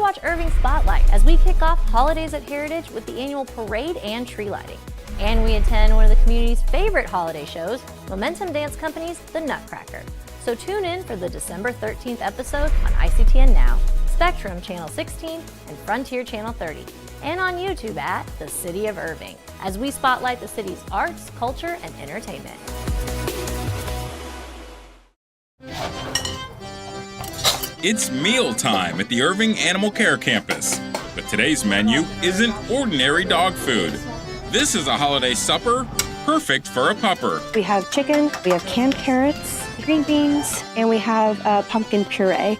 watch Irving Spotlight as we kick off holidays at Heritage with the annual parade and tree lighting. And we attend one of the community's favorite holiday shows, Momentum Dance Company's The Nutcracker. So tune in for the December 13th episode on ICTN Now, Spectrum Channel 16, and Frontier Channel 30, and on YouTube at The City of Irving, as we spotlight the city's arts, culture, and entertainment. It's meal time at the Irving Animal Care Campus. But today's menu isn't ordinary dog food. This is a holiday supper perfect for a pupper. We have chicken, we have canned carrots, green beans, and we have uh, pumpkin puree.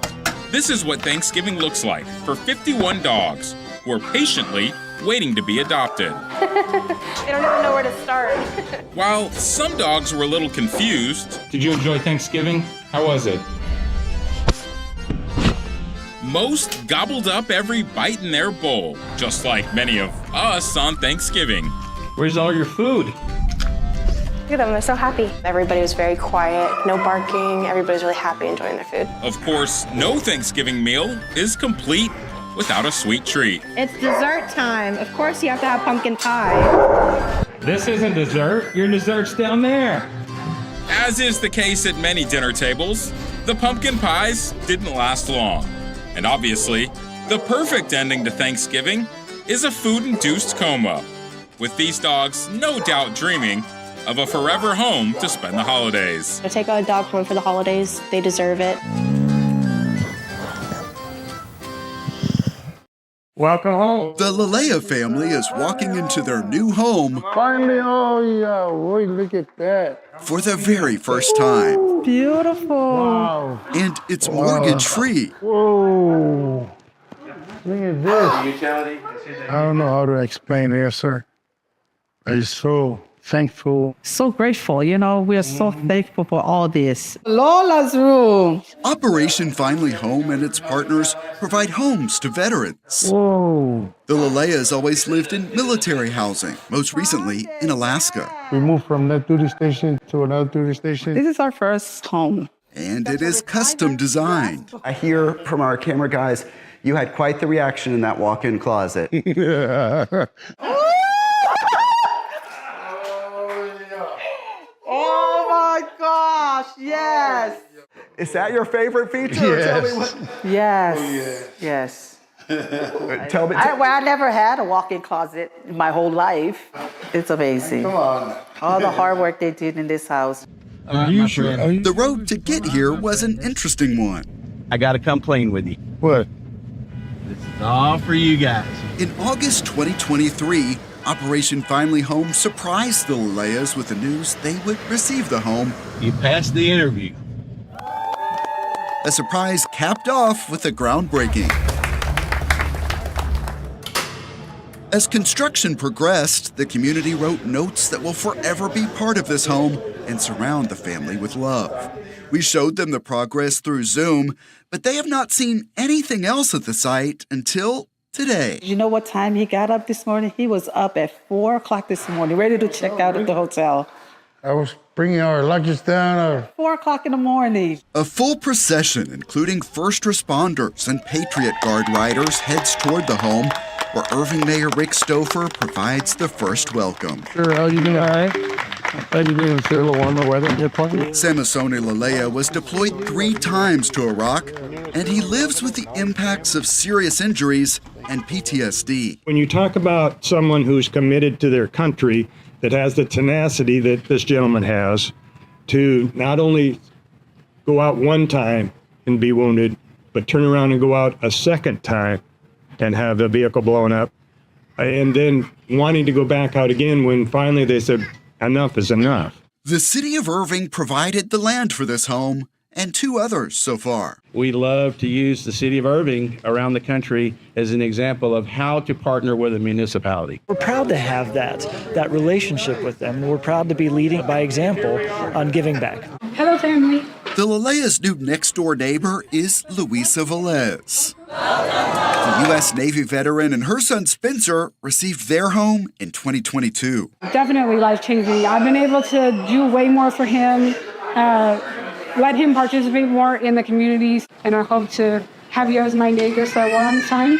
This is what Thanksgiving looks like for 51 dogs who are patiently waiting to be adopted. They don't even know where to start. While some dogs were a little confused, Did you enjoy Thanksgiving? How was it? most gobbled up every bite in their bowl, just like many of us on Thanksgiving. Where's all your food? Look at them, they're so happy. Everybody was very quiet, no barking. Everybody's really happy enjoying their food. Of course, no Thanksgiving meal is complete without a sweet treat. It's dessert time. Of course, you have to have pumpkin pie. This isn't dessert. Your dessert's down there. As is the case at many dinner tables, the pumpkin pies didn't last long. And obviously, the perfect ending to Thanksgiving is a food induced coma, with these dogs no doubt dreaming of a forever home to spend the holidays. So take a dog home for the holidays. They deserve it. Welcome home. The Lalea family is walking into their new home Finally, oh yeah, boy, look at that. for the very first time. Beautiful. Wow. And it's mortgage free. Whoa. Look at this. I don't know how to explain it, sir. I'm so thankful. So grateful. You know, we are so thankful for all this. Lola's room. Operation Finally Home and its partners provide homes to veterans. Whoa. The Laleas always lived in military housing, most recently in Alaska. We moved from that duty station to another duty station. This is our first home. And it is custom designed. I hear from our camera guys, you had quite the reaction in that walk in closet. Oh my gosh. Yes. Is that your favorite feature? Tell me Yes. what. Yes. Oh, Yes. Tell me. I, well, I never had a walk in closet my whole life. It's amazing. Come on. All the hard work they did in this house. Unusual. Are you- The road to get here was an interesting one. I gotta come playing with you. What? This is all for you guys. In August 2023, Operation Finally Home surprised the Laleas with the news they would receive the home You passed the interview. A surprise capped off with a groundbreaking. As construction progressed, the community wrote notes that will forever be part of this home and surround the family with love. We showed them the progress through Zoom, but they have not seen anything else at the site until today. You know what time he got up this morning? He was up at four o'clock this morning, ready to check out at the hotel. I was bringing our luggage down. Our Four o'clock in the morning. A full procession, including first responders and Patriot Guard riders, heads toward the home, where Irving Mayor Rick Stouffer provides the first welcome. Sure, how you doing? All right. How you doing, sir? A little warmer weather. Yeah, plenty. Samasone Lalea was deployed three times to Iraq, and he lives with the impacts of serious injuries and PTSD. When you talk about someone who's committed to their country, that has the tenacity that this gentleman has to not only go out one time and be wounded, but turn around and go out a second time and have the vehicle blown up, uh, and then wanting to go back out again when finally they said, enough is enough. The city of Irving provided the land for this home and two others so far. We love to use the city of Irving around the country as an example of how to partner with a municipality. We're proud to have that, that relationship with them. We're proud to be leading by example on giving back. Hello, family. The Lalea's new next door neighbor is Luisa Velez. The U.S. Navy veteran and her son Spencer received their home in 2022. Definitely life changing. I've been able to do way more for him, uh, let him participate more in the communities, and I hope to have you as my neighbor for a long time.